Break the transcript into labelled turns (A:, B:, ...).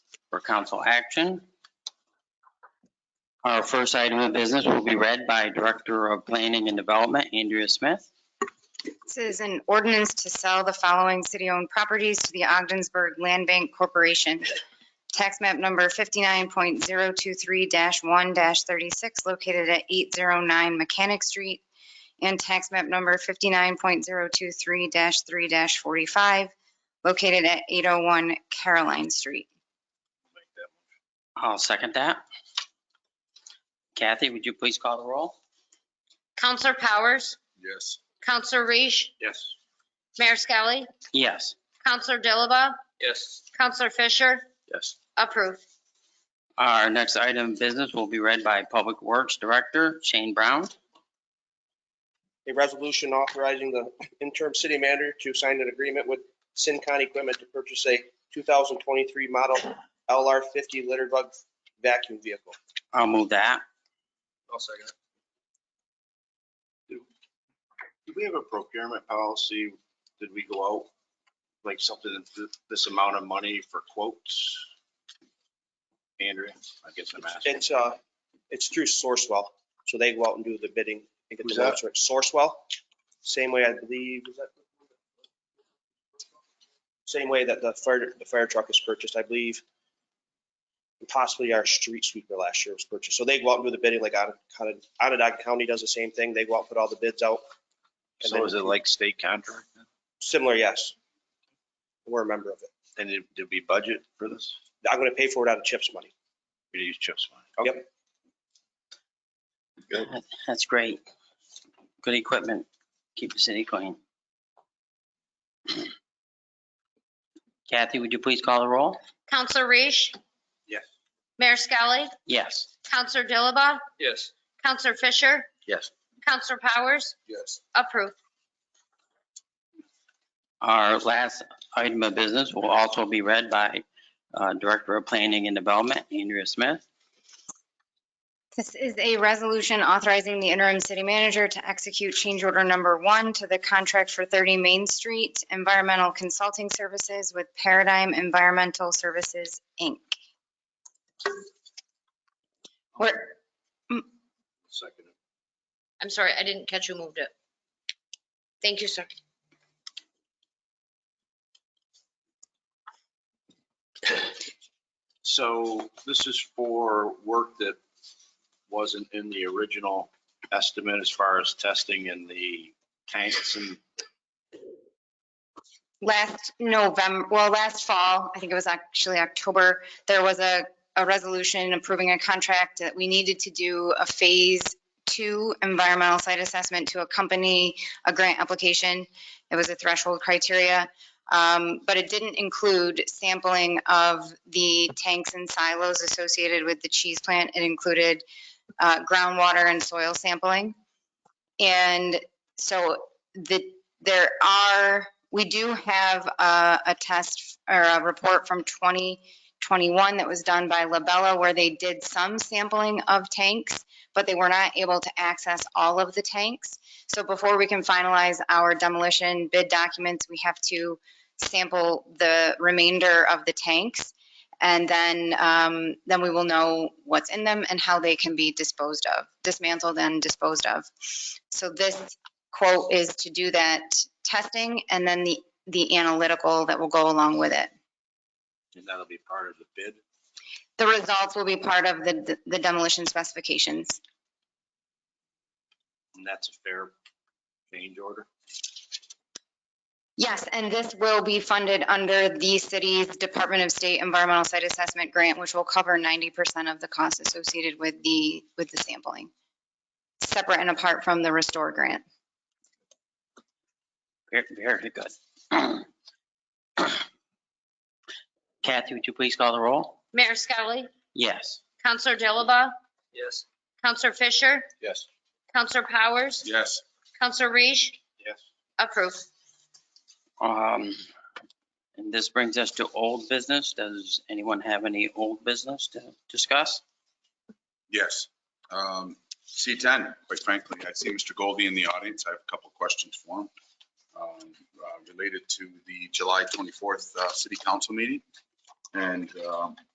A: for council action. Our first item of business will be read by Director of Planning and Development, Andrea Smith.
B: This is an ordinance to sell the following city-owned properties to the Ogdensburg Land Bank Corporation. Tax map number 59.023-1-36 located at 809 Mechanic Street and tax map number 59.023-3-45 located at 801 Caroline Street.
A: I'll second that. Kathy, would you please call the roll?
C: Counselor Powers,
D: Yes.
C: Counselor Reach,
D: Yes.
C: Mayor Skelly,
A: Yes.
C: Counselor Dilaba,
D: Yes.
C: Counselor Fisher,
D: Yes.
C: approved.
A: Our next item of business will be read by Public Works Director Shane Brown.
E: a resolution authorizing the interim city manager to sign an agreement with Sincon Equipment to purchase a 2023 model LR50 litter bug vacuum vehicle.
A: I'll move that.
D: I'll second it. Do we have a procurement policy? Did we go out like something, th- this amount of money for quotes? Andrea, I guess I'm asking.
E: It's, uh, it's through Sourcewell, so they go out and do the bidding and get
D: Who's
E: the votes. Sourcewell, same way I believe, is that? Same way that the fire, the fire truck is purchased, I believe. And Possibly our street sweeper last year was purchased. So they go out and do the bidding like Onondaga County- Onondaga County does the same thing. They go out, and put all the bids out. and
D: So
E: then-
D: is it like state contract?
E: Similar, yes. We're a member of it.
D: And did did we budget for this?
E: I'm going to pay for it out of CHIPS money.
D: We use CHIPS money.
A: That's great. Good equipment. Keep the city clean. Kathy, would you please call the roll?
C: Counselor Reach.
D: Yes.
C: Mayor Skelly,
A: Yes.
C: Counselor Dilaba,
D: Yes.
C: Counselor Fisher,
D: Yes.
C: Counselor Powers,
D: Yes.
C: approved.
A: Our last item of business will also be read by uh, Director of Planning and Development, Andrea Smith.
B: This is a resolution authorizing the interim city manager to execute change order number one to the contract for 30 Main Street Environmental Consulting Services with Paradigm Environmental Services, Inc. Where-
D: Second.
C: I'm sorry, I didn't catch who moved it. Thank you, sir.
D: So this is for work that wasn't in the original estimate as far as testing in the tanks and
B: last November, well, last fall, I think it was actually October, there was a, a resolution approving a contract that we needed to do a phase two environmental site assessment to accompany a grant application. It was a threshold criteria, um, but it didn't include sampling of the tanks and silos associated with the cheese plant. It included uh, groundwater and soil sampling. And so the, there are we do have a, a test or a report from 2021 that was done by Labella where they did some sampling of tanks, but they were not able to access all of the tanks. So before we can finalize our demolition bid documents, we have to sample the remainder of the tanks. And then, um, then we will know what's in them and how they can be disposed of, dismantled and disposed of. So this quote is to do that testing and then the, the analytical that will go along with it.
D: and that'll be part of the bid.
B: The results will be part of the, the demolition specifications.
D: And that's a fair change order.
B: Yes, and this will be funded under the city's Department of State Environmental Site Assessment Grant, which will cover 90% of the costs associated with the, with the sampling, separate and apart from the Restore Grant.
A: Very, very good. Kathy, would you please call the roll?
C: Mayor Skelly,
A: Yes.
C: Counselor Dilaba,
D: Yes.
C: Counselor Fisher,
D: Yes.
C: Counselor Powers,
D: Yes.
C: Counselor Reach,
D: Yes.
C: approved.
A: Um, and this brings us to old business. Does anyone have any old business to discuss?
F: Yes. Um, C10, quite frankly, I see Mr. Goldie in the audience. I have a couple questions for him um, uh, related to the July 24th uh, City Council meeting. And um,